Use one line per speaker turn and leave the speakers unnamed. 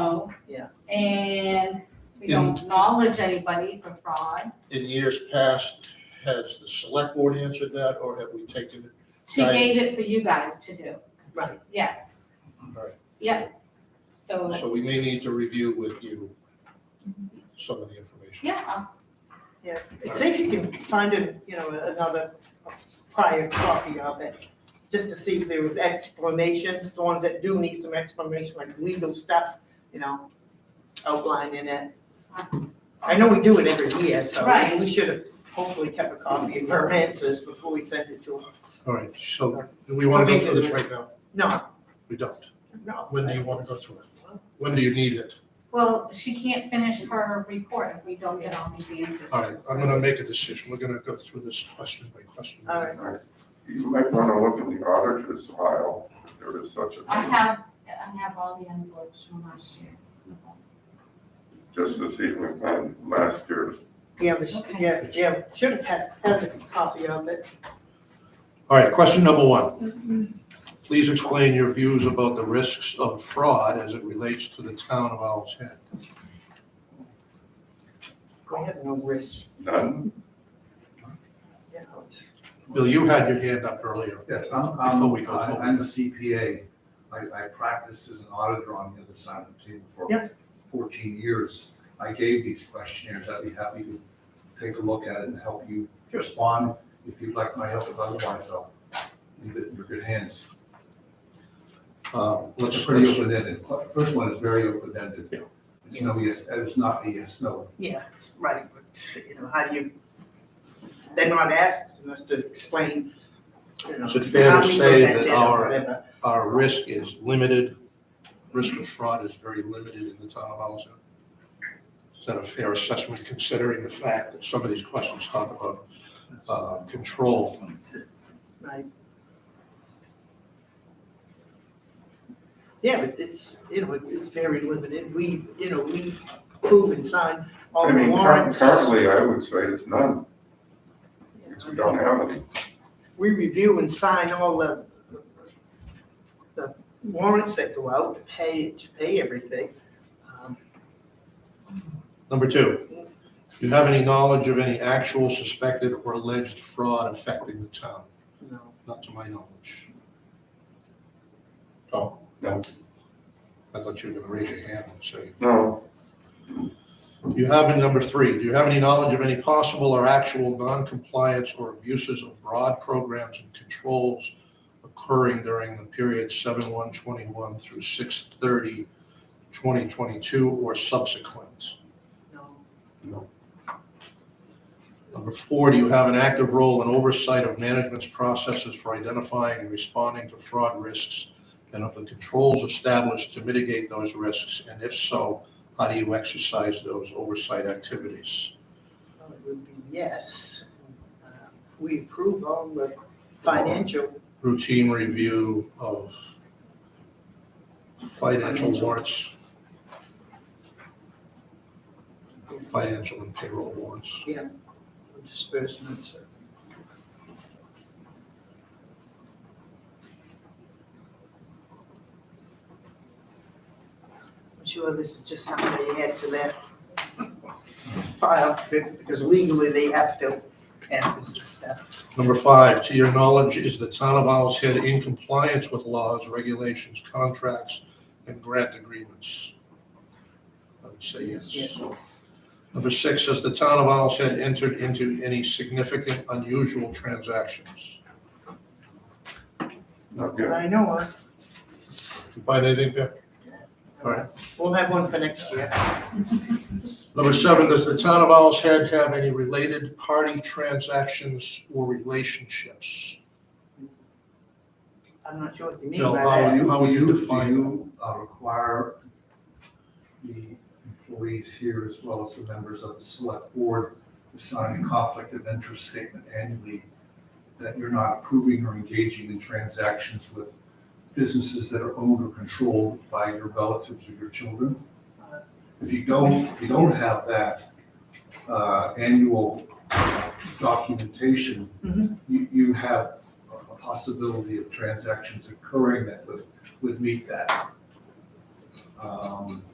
know.
Yeah.
Oh. And we don't acknowledge anybody for fraud.
In years past, has the select board answered that, or have we taken it?
She
Right.
gave it for you guys to do.
Right.
Yes.
Right.
Yep. So,
So we may need to review with you some of the information.
yeah,
See if you can find a, you know, another prior copy of it, just to see if there was explanations, the ones that do need some explanation, like legal stuff, you know, outlined in it. I know we do it every year, so
Right.
we should have hopefully kept a copy of our answers before we sent it to them.
All right, so do we want to go through this right now?
No,
We don't.
no.
When do you want to go through it? When do you need it?
well, she can't finish her report if we don't get all these answers.
All right, I'm going to make a decision. We're going to go through this question by question.
All right.
You might want to look in the auditor's file, if there is such a
I
thing,
have, I have all the envelopes from last year.
just to see if we find last year's.
Yeah, we sh-
Okay.
yeah, yeah, should have had, had a copy of it.
All right, question number one. Please explain your views about the risks of fraud as it relates to the town of Owl's Head.
We have no risk,
None?
you know, it's,
Bill, you had your hand up earlier.
Yes, I'm,
Before
I'm,
we go
I-
forward.
I'm a CPA. I, I practiced as an auditor on the other side of the table
Yeah.
for fourteen years. I gave these questionnaires. I'd be happy to take a look at it and help you respond if you'd like my help. If otherwise, I'll leave it in your good hands.
Uh,
It's
Let's,
pretty
let's,
open-ended. First one is very open-ended.
Yeah.
It's no yes, it's not a yes, no.
yeah, it's right, but, you know, how do you, they're not asking us to explain, you know.
Is it fair to
how we
say
present
that
it or
our-
whatever.
our risk is limited. Risk of fraud is very limited in the town of Owl's Head. Is that a fair assessment considering the fact that some of these questions talk about uh, control?
Right. Yeah, but it's, you know, it's very limited, we, you know, we prove and sign all
I
the
mean, cur-
warrants.
currently, I would say it's none, because we don't have any.
we review and sign all the, the warrants that go out, to pay, to pay everything. Um,
Number two, do you have any knowledge of any actual suspected or alleged fraud affecting the town?
you know,
Not to my knowledge.
No,
I thought you were going to raise your hand and say,
no,
do you have, any number three, do you have any knowledge of any possible or actual noncompliance or abuses of broad programs and controls occurring during the period seven one twenty-one through 2022 or subsequent?
no,
Number four, do you have an active role in oversight of management's processes for identifying and responding to fraud risks? And of the controls established to mitigate those risks? And if so, how do you exercise those oversight activities?
no, it would be yes. Uh, We approve all the financial,
Routine review of financial warrants, financial and payroll warrants.
disbursements. I'm sure this is just something they add to their file, because legally they have to ask us this stuff.
Number five, to your knowledge, is the town of Owl's Head in compliance with laws, regulations, contracts, and grant agreements? I would say yes.
Yes.
Number six, has the town of Owl's Head entered into any significant unusual transactions?
not yet.
I know, uh,
Did you find anything there? All right.
we'll have one for next year.
Number seven, does the town of Owl's Head have any related party transactions or relationships?
I'm not sure what you mean
No,
by
I'll-
that.
Do
how would you
do
define
do you, uh, require the employees here as well as the members of the select board to sign a conflict of interest statement annually that you're not approving or engaging in transactions with businesses that are owned or controlled by your relatives or your children? If you don't, if you don't have that uh, annual documentation,
Mhm.
you, you have a a possibility of transactions occurring that would, would meet that. Um,